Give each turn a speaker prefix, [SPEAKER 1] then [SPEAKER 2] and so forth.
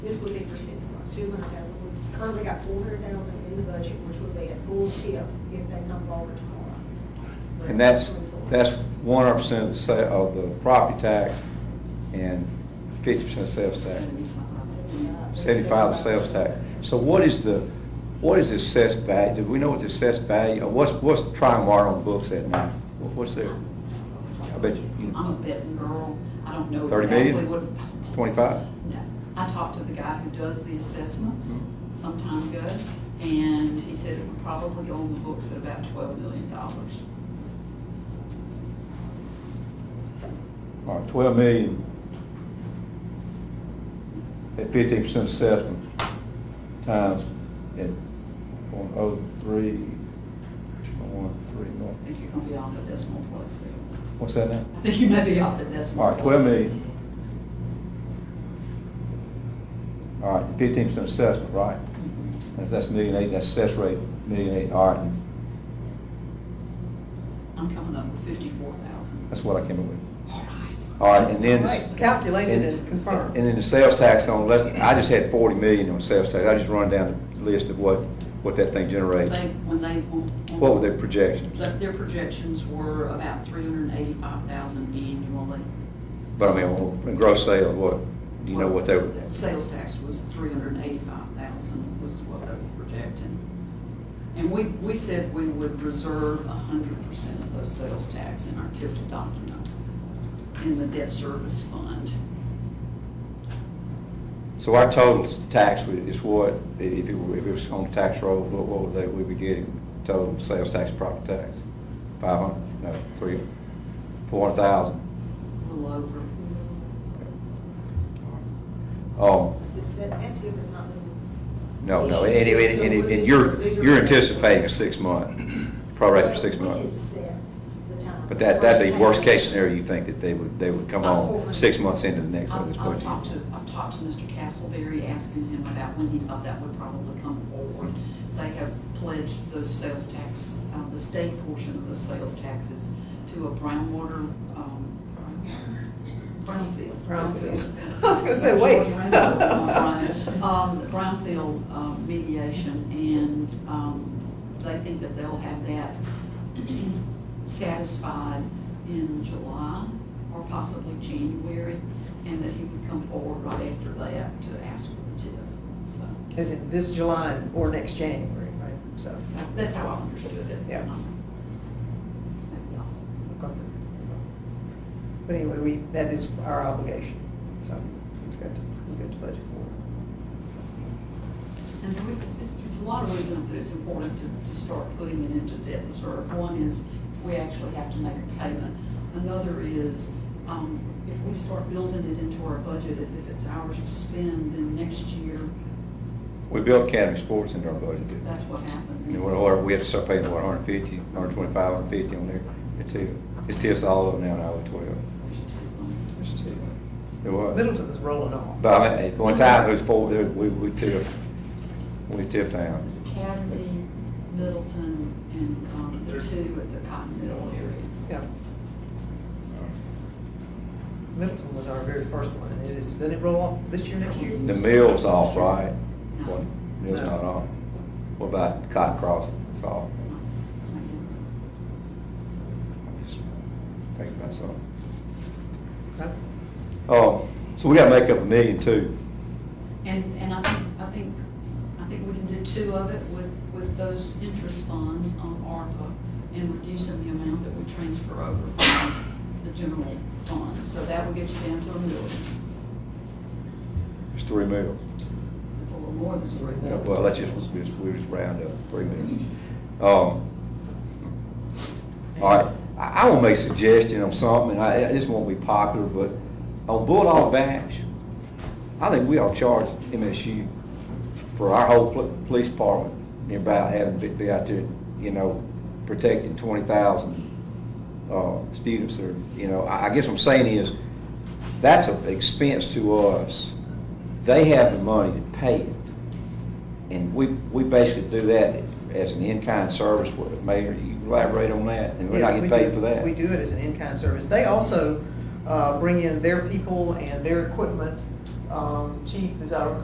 [SPEAKER 1] this would be for six months, two hundred thousand. We currently got four hundred thousand in the budget, which would be a full tip if they come forward tomorrow.
[SPEAKER 2] And that's, that's one hundred percent of the sa, of the property tax and fifty percent of sales tax. Seventy-five of sales tax. So what is the, what is the assessed value? Do we know what the assessed value, or what's, what's Trimark on books at now? What- What's their, I bet you, you
[SPEAKER 3] I'm a
[SPEAKER 2] know,
[SPEAKER 3] betting girl. I don't know
[SPEAKER 2] 30
[SPEAKER 3] exactly
[SPEAKER 2] million?
[SPEAKER 3] what.
[SPEAKER 2] 25?
[SPEAKER 3] No. I talked to the guy who does the assessments
[SPEAKER 2] Mm-hmm.
[SPEAKER 3] some time ago, and he said it would probably go on the books at about twelve million dollars.
[SPEAKER 2] all right, uh, twelve million at fifteen percent assessment times at one oh three, one oh three, one,
[SPEAKER 3] I think you're gonna be off the decimal place there.
[SPEAKER 2] what's that now?
[SPEAKER 3] I think you may be off the decimal.
[SPEAKER 2] All right, twelve million. All right, fifteen percent assessment, right?
[SPEAKER 3] Mhm.
[SPEAKER 2] If that's million eight, that's assess rate, million eight, all right,
[SPEAKER 3] I'm coming up with fifty-four thousand.
[SPEAKER 2] that's what I came up with.
[SPEAKER 3] All right.
[SPEAKER 2] All right, and then.
[SPEAKER 4] Right, calculated and confirmed.
[SPEAKER 2] And then the sales tax on, less. I just had forty million on sales tax, I just run down the list of what, what that thing generates.
[SPEAKER 3] They, when they. on- on-
[SPEAKER 2] What were their projections?
[SPEAKER 3] Their their projections were about three hundred and eighty-five thousand annually.
[SPEAKER 2] But I mean, on gross sales, what, do you know what they were?
[SPEAKER 3] Well, Sales tax was three hundred and eighty-five thousand was what they were projecting. And we, we said we would reserve hundred percent of those sales tax in our TIF document in the debt service fund.
[SPEAKER 2] So our total tax wa- is what, i- if it were, if it was on the tax roll, what, what would they, we'd be getting total sales tax, property tax? Five hundred, no, three, four hundred thousand.
[SPEAKER 3] A little over,
[SPEAKER 2] Oh,
[SPEAKER 1] That, that tip is not moving.
[SPEAKER 2] no, no, and, and, and- and- and you're, you're anticipating a six-month, probably for six
[SPEAKER 1] We can
[SPEAKER 2] months.
[SPEAKER 1] set the time.
[SPEAKER 2] But that, that'd be worst-case scenario, you think that they would, they would come on six months into the next one, this
[SPEAKER 3] I've, I've talked
[SPEAKER 2] budget?
[SPEAKER 3] to, I've talked to Mr. Castleberry, asking him about when he thought that would probably come forward. They have pledged those sales tax, uh, the state portion of those sales taxes to a brownwater, um, brownfield.
[SPEAKER 4] I was gonna say, wait.
[SPEAKER 3] Um, brownfield um, mediation, and, um, they think that they'll have that satisfied in July or possibly January, and that he would come forward right after that to ask for the TIF. So
[SPEAKER 4] Is it this July or next January, right? So,
[SPEAKER 3] that- that's how I understood it.
[SPEAKER 4] Yeah.
[SPEAKER 3] Maybe off.
[SPEAKER 4] okay. But anyway, we, that is our obligation, so we've got to, we've got to budget for
[SPEAKER 3] And there we- there's a lot of reasons that it's important to, to start putting it into debt reserve. One is we actually have to make a payment. Another is, um, if we start building it into our budget as if it's ours to spend, then next year,
[SPEAKER 2] We built Academy Sports into our budget, didn't we?
[SPEAKER 3] that's what happens.
[SPEAKER 2] And what, what, we have to start paying, what, hundred fifty, hundred twenty-five, hundred fifty on there, it's two, it's just all of them now, now, twelve,
[SPEAKER 4] it. There's two.
[SPEAKER 2] it was.
[SPEAKER 4] Middleton is rolling off.
[SPEAKER 2] But I mean, at one time, it was four, there- we, we tipped, we tipped down,
[SPEAKER 3] Academy, Middleton, and, um, the two at the Cotton Mill area.
[SPEAKER 4] Yeah. Middleton was our very first one, and it is, doesn't it roll off this year, next year?
[SPEAKER 2] the mill's off, right?
[SPEAKER 3] No.
[SPEAKER 2] What, mill's not on, what about Cotton Crossing, it's off, I'm just thinking about something.
[SPEAKER 4] Okay.
[SPEAKER 2] Oh, so we gotta make up a million too,
[SPEAKER 3] And, and I think, I think, I think we can do two of it with, with those interest funds on ARPA and reducing the amount that we transfer over from the general fund. So that will get you down to a million.
[SPEAKER 2] it's three mills.
[SPEAKER 3] It's a little more than three
[SPEAKER 2] Yeah,
[SPEAKER 3] million.
[SPEAKER 2] Well, let's just, we just- we just round up, three minutes. Um, All right, I, I will make a suggestion on something, and I, this won't be popular, but on Bulldog Bash, I think we ought to charge MSU for our whole pol- police department, and about having to be out there, you know, protecting twenty thousand, uh, students or, you know, I, I guess what I'm saying is, that's an expense to us. They have the money to pay it. And we, we basically do that as an in-kind service with the mayor. You elaborate on that, and we're not
[SPEAKER 4] Yes,
[SPEAKER 2] getting
[SPEAKER 4] we
[SPEAKER 2] paid
[SPEAKER 4] do-
[SPEAKER 2] for that.
[SPEAKER 4] We do it as an in-kind service. They also uh, bring in their people and their equipment. Um, Chief is our